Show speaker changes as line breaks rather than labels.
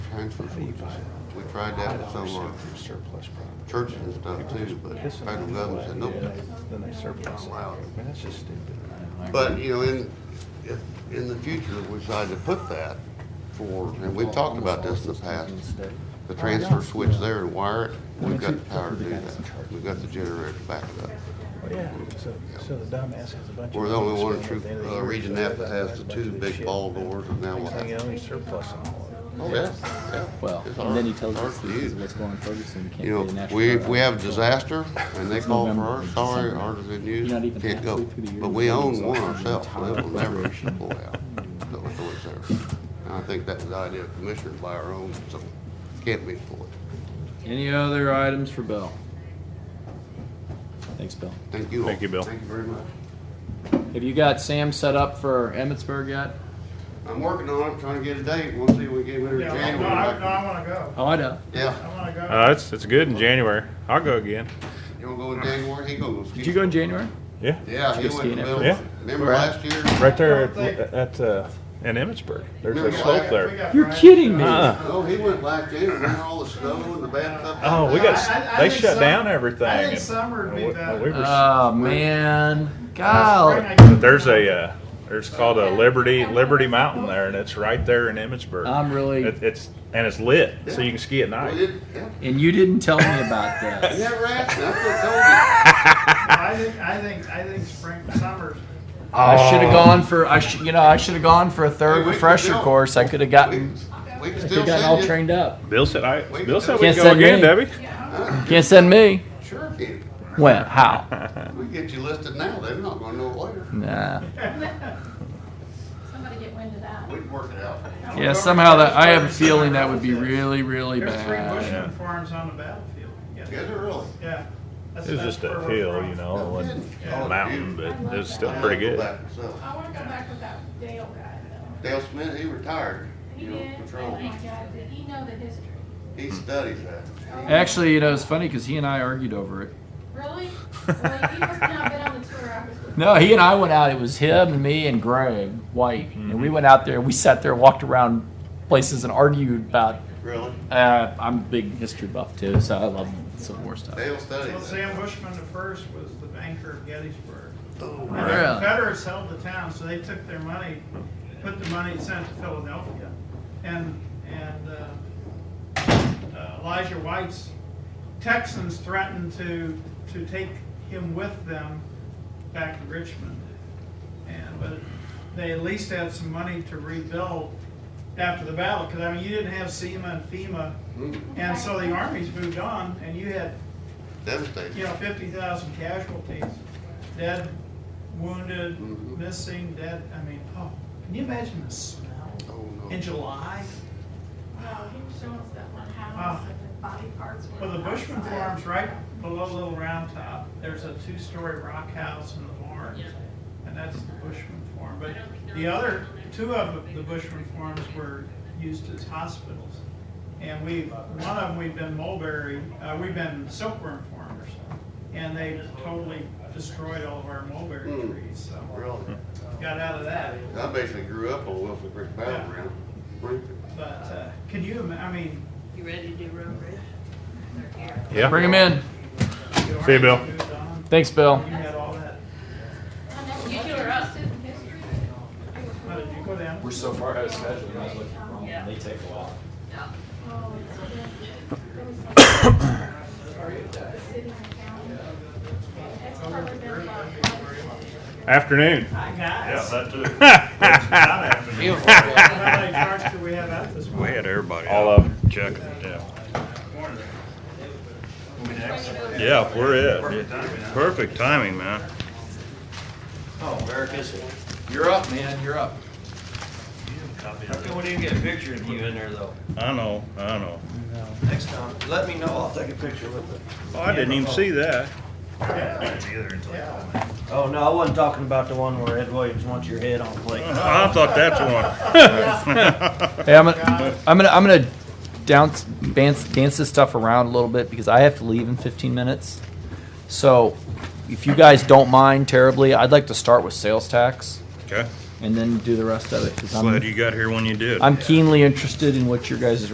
transfers, which is, we tried that with some of our
Surplus property.
churches and stuff too, but federal government said, nope.
Then they surplus it. I
Wow.
mean, that's just stupid.
But, you know, in, if, in the future, we decide to put that for, and we've talked about this in the past, the transfer switch there and wire it, we've got the power to do that. We've got the generator to back it up.
Yeah, so, so the dumbass has a bunch of.
We're the only one
money
true,
spent at the end of the
uh,
year,
region
so
F that
that's
has
a
the
bunch
two
of
big
shit.
ball doors, and now what?
Next thing you know, he's surplusing all of it.
Oh, yeah, yeah.
Well,
It's
and then he
ours-
tells
ours
us
to
this is
use.
what's going on in Ferguson. We can't
You
pay
know,
national
we, if
guard.
we have a disaster and they
It's
call for
November,
ours,
it's
sorry,
December.
ours is in use,
You're not even
can't go.
halfway through the year.
But we own
It's
one
already
ourselves, so it will never
operation.
pull out. So it's always there. And I think that was the idea of commissioners by our own, so can't be pulled.
Any other items for Bell?
Thanks, Bill.
Thank you all.
Thank you, Bill.
Thank you very much.
Have you got Sam set up for Emmitsburg yet?
I'm working on it, trying to get a date. We'll see if we can get it in
Yeah, no, I, no,
January.
I wanna go.
Oh, I know.
Yeah,
I wanna go.
Uh, it's it's good in January. I'll go again.
you wanna go in January? He gonna go ski.
Did you go in January?
Yeah,
Yeah, he went
Did you
to
ski in
Bill.
Yeah.
Remember
Right.
last year?
right there at, at uh, in Emmitsburg. There's a slope
We
there.
got
You're
Brian.
kidding me.
Uh-uh.
Oh, he went last year, remember all the snow and the bad stuff?
Oh, we got s-
I- I- I
they
think
shut
some-
down everything.
I think
and-
summer would be
and we-
better.
we were s-
Oh, man. God.
Spring, I-
there's a uh, there's called a Liberty Liberty Mountain there, and it's right there in Emmitsburg.
I'm really-
It, it's and it's lit, so you can ski at
We
night.
did, yeah.
And you didn't tell me about
You
this.
never asked me. I could've
uh,
I think, I think, I think spring, summer's.
I should have gone for I should you know I should have gone for a
Hey,
third
we could
refresher
go.
course. I could have
told you.
gotten
We, we can
could have
still
gotten all
send you.
trained up.
Bill said I
Wait,
Bill said we
Can't
go
send
again,
me.
Debbie.
Can't send me.
Sure can.
When? How?
We can get you listed now. They're not gonna know later.
Nah.
Somebody get wind of that.
We can work it out.
Yeah. Somehow that I have a feeling that would be really really
There's three
bad.
Bushman farms on the battlefield. Yeah.
Is it really?
Yeah. That's-
It was
that's
just
where
a
we're
hill,
from.
you know, it wasn't
Yeah.
a
Oh,
mountain, but it was still pretty
I'll go
good.
back myself.
I wanna go back with that Dale guy though.
Dale Smith, he retired,
He
you
did,
know,
oh
patrol.
my God, did he know the history?
He studies that.
Actually, you know, it's funny because he and I argued over it.
Really? Well, he must not been on the tour I was with.
No, he and I went out. It was him and me and Greg White, and we went out there. We sat there, walked around places, and argued about.
Really?
Uh, I'm a big history buff too, so I love Civil War stuff.
Dale
Well,
studies that.
Sam Bushman the first was the banker of Gettysburg.
Oh,
And
Really?
The Confederates held the town, so they took their money, put the money and sent it to Philadelphia. And, and uh, uh, Elijah White's Texans threatened to, to take him with them back to Richmond. And, but they at least had some money to rebuild after the battle, because I mean, you didn't have SEMA and FEMA.
Mm-hmm.
And so the armies moved on, and you had you
Devastating.
know, fifty thousand casualties, dead, wounded,
Mhm.
missing, dead, I mean, oh, can you imagine the smell
Oh, no.
in July?
No, he was showing us that one
Ah.
house and the body parts were.
Well, the Bushman
outside.
Farms, right below Little Round Top, there's a two-story rock house and the barn, and that's the Bushman Farm. But the other, two of the Bushman Farms were used as hospitals. And we, one of them, we've been mulberry, uh, we've been silkworm farmers, and they totally destroyed all of our mulberry
Hmm.
trees, so
Really?
got out of that.
I basically grew up on Wilson Creek Battleground. Springfield.
But, uh, can you, ima- I mean,
You ready to do road bridge? They're here.
Bring
Yeah,
him in.
the
See you, Bill.
army moved on,
Thanks, Bill.
You had all that.
I know, You two are up. History.
How did you go down?
We're so far out of schedule. I was looking wrong.
Yeah.
They take a while.
Um, Oh, it's been- The city and county. That's probably been about
afternoon.
Guys.
too.
How many charts do we have out this morning?
had everybody. All of them. Check it. Yeah. Yeah, we're it. Perfect timing, man.
Oh, Eric is You're up, man. You're up.
How come we didn't get a picture of you in there though?
I know. I know.
Next time, let me know, I'll take a picture with it.
Oh, I didn't even see that.
Oh, no, I wasn't talking about the one where Ed Williams wants your head on a plate.
I thought that's one.
Hey, I'm gonna, I'm gonna, I'm gonna dance, dance, dance this stuff around a little bit because I have to leave in 15 minutes. So, if you guys don't mind terribly, I'd like to start with sales tax
Okay.
and then do the rest of it because
Glad
I'm,
you got here when you did.
I'm keenly interested in what your guys'